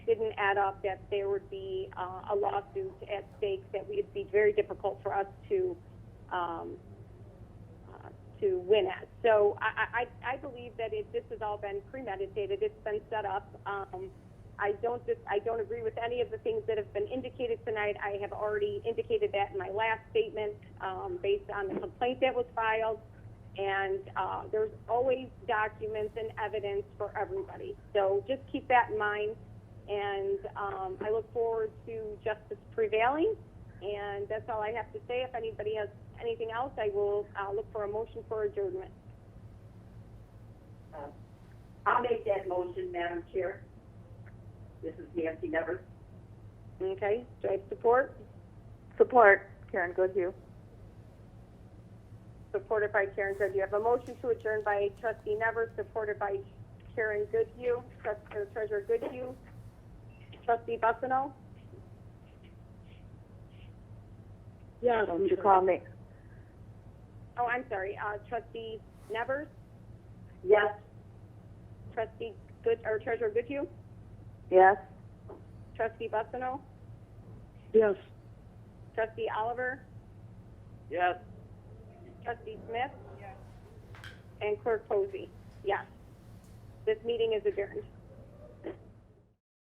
didn't add up that there would be uh, a lawsuit at stake that we- it'd be very difficult for us to um, uh, to win at. So I, I, I believe that it, this has all been premeditated. It's been set up. Um, I don't dis- I don't agree with any of the things that have been indicated tonight. I have already indicated that in my last statement um, based on the complaint that was filed. And uh, there's always documents and evidence for everybody. So just keep that in mind. And um, I look forward to justice prevailing. And that's all I have to say. If anybody has anything else, I will uh, look for a motion for adjournment. Uh, I'll make that motion, Madam Chair. This is Nancy Nevers. Okay, do I have support? Support, Karen Goodhue. Supported by Karen Goodhue. You have a motion to adjourn by trustee Nevers, supported by Karen Goodhue, trust, or treasurer Goodhue. Trustee Bussino? Yeah. Don't you call me, Oh, I'm sorry, uh, trustee Nevers, Yes. trustee Good, or treasurer Goodhue, yes? trustee Bussino, Yes. trustee Oliver, Yes. trustee Smith? Yes. And clerk Posey, yes. This meeting is adjourned.